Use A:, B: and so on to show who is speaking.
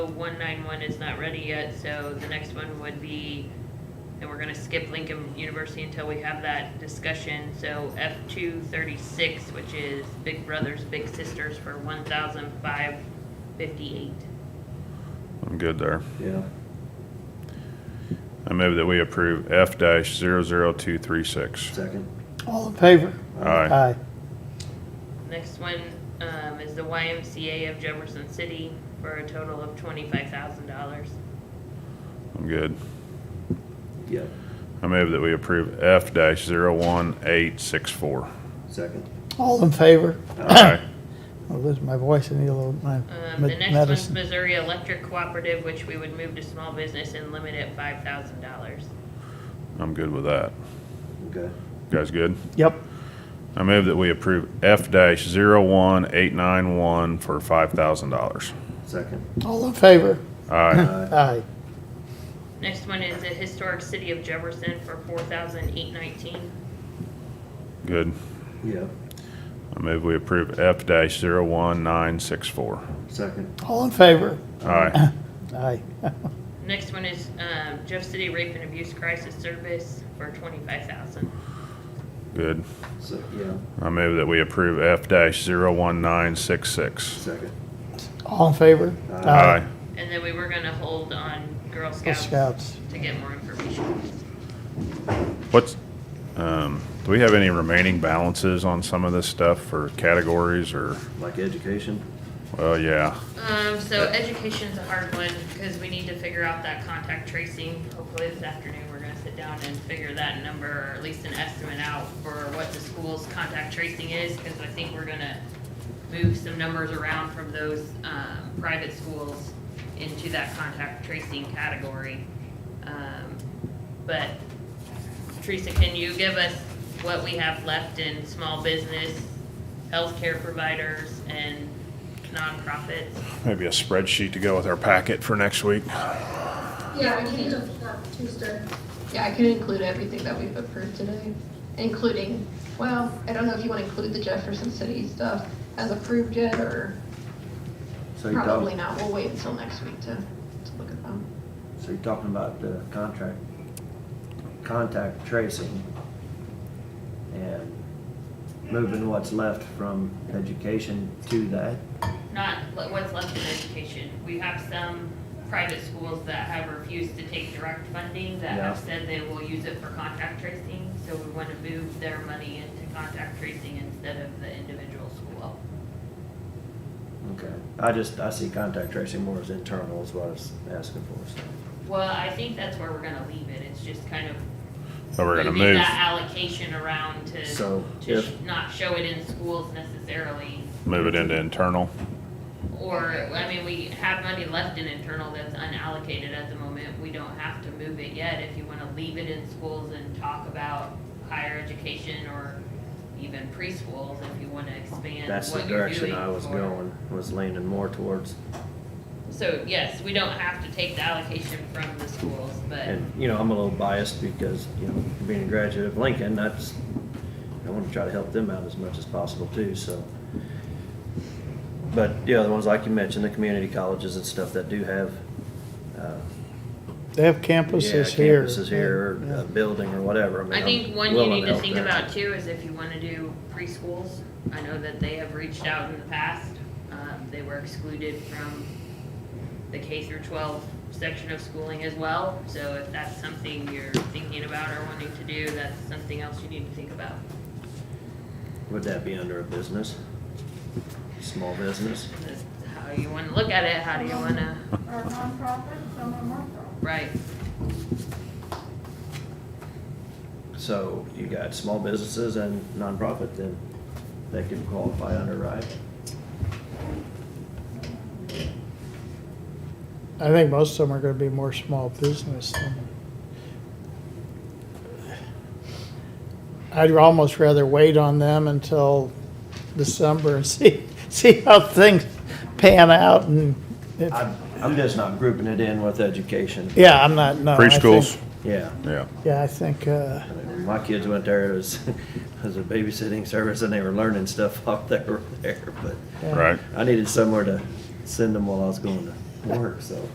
A: one nine one is not ready yet, so the next one would be, and we're gonna skip Lincoln University until we have that discussion, so F two thirty-six, which is Big Brothers Big Sisters for one thousand five fifty-eight.
B: I'm good there.
C: Yeah.
B: I move that we approve F dash zero zero two three six.
C: Second.
D: All in favor?
B: Aye.
A: Next one, um, is the YMCA of Jefferson City for a total of twenty-five thousand dollars.
B: I'm good.
C: Yep.
B: I move that we approve F dash zero one eight six four.
C: Second.
D: All in favor?
B: Aye.
D: I'll lose my voice, I need a little my
A: Um, the
D: med-
A: next one's
D: medicine.
A: Missouri Electric Cooperative, which we would move to small business and limit at five thousand dollars.
B: I'm good with that.
C: Okay.
B: You guys good?
D: Yep,
B: I move that we approve F dash zero one eight nine one for five thousand dollars.
C: Second. Uh,
D: all in favor?
B: Aye.
C: Aye.
D: Aye.
A: Next one is the Historic City of Jefferson for four thousand eight nineteen.
B: Good.
C: Yep.
B: I move we approve F dash zero one nine six four.
C: Second.
D: All in favor?
B: Aye.
D: Aye.
A: Next one is, um, Jeff City Rape and Abuse Crisis Service for twenty-five thousand.
B: Good.
C: So, yeah.
B: I move that we approve F dash zero one nine six six.
C: Second.
D: All in favor?
C: Aye.
B: Aye.
A: And then we were gonna hold on Girl
D: Girl
A: Scouts to
D: Scouts.
A: get more information.
B: What's, um, do we have any remaining balances on some of this stuff or categories or,
C: Like education.
B: well, yeah.
A: Um, so education's a hard one, because we need to figure out that contact tracing. Hopefully this afternoon, we're gonna sit down and figure that number, or at least an estimate out for what the school's contact tracing is, because I think we're gonna move some numbers around from those, um, private schools into that contact tracing category. Um, but Teresa, can you give us what we have left in small business, healthcare providers, and nonprofits?
B: Maybe a spreadsheet to go with our packet for next week.
E: Yeah, I can, uh, Tuesday. Yeah, I can include everything that we've approved today, including, well, I don't know if you want to include the Jefferson City stuff as approved yet, or
C: So you're
E: probably
C: talking,
E: not. We'll wait until next week to, to look at them.
C: so you're talking about the contract, contact tracing and moving what's left from education to that.
A: Not le- what's left in education. We have some private schools that have refused to take direct funding, that have
C: Yeah.
A: said they will use it for contact tracing. So we want to move their money into contact tracing instead of the individual school.
C: Okay. I just, I see contact tracing more as internal is what I was asking for, so.
A: Well, I think that's where we're gonna leave it. It's just kind of
B: So we're gonna
A: moving
B: move,
A: that allocation around to,
C: So
A: to sh-
C: if,
A: not show it in schools necessarily.
B: move it into internal.
A: Or, I mean, we have money left in internal that's unallocated at the moment, we don't have to move it yet, if you wanna leave it in schools and talk about higher education or even preschools, if you wanna expand
C: that's the
A: what you're
C: direction
A: doing
C: I was
A: for-
C: going, was leaning more towards.
A: So, yes, we don't have to take the allocation from the schools, but,
C: And, you know, I'm a little biased because, you know, being a graduate of Lincoln, that's, I want to try to help them out as much as possible too, so. But, yeah, the ones like you mentioned, the community colleges and stuff that do have, uh,
D: They have
C: yeah,
D: campuses here.
C: campuses here, or a building or whatever, I mean.
A: I
C: I'm
A: think one you
C: willing
A: need to
C: help
A: think
C: there.
A: about too is if you wanna do preschools, I know that they have reached out in the past, um, they were excluded from the K through twelve section of schooling as well, so if that's something you're thinking about or wanting to do, that's something else you need to think about.
C: Would that be under a business? Small business?
A: That's how you wanna look at it, how do you wanna,
F: Or nonprofit, some are nonprofit.
A: right,
C: So you got small businesses and nonprofit then that can qualify under, right?
D: I think most of them are gonna be more small business than. I'd almost rather wait on them until December and see, see how things pan out and if,
C: I'm, I'm just not grouping it in with education.
D: yeah, I'm not, no. Uh, I think-
B: Preschools,
C: Yeah.
B: yeah.
D: Yeah, I think, uh,
C: When My kids went there, it was, it was a babysitting service and they were learning stuff while they were there, but
D: yeah.
B: Right.
C: I needed somewhere to send them while I was going to work, so.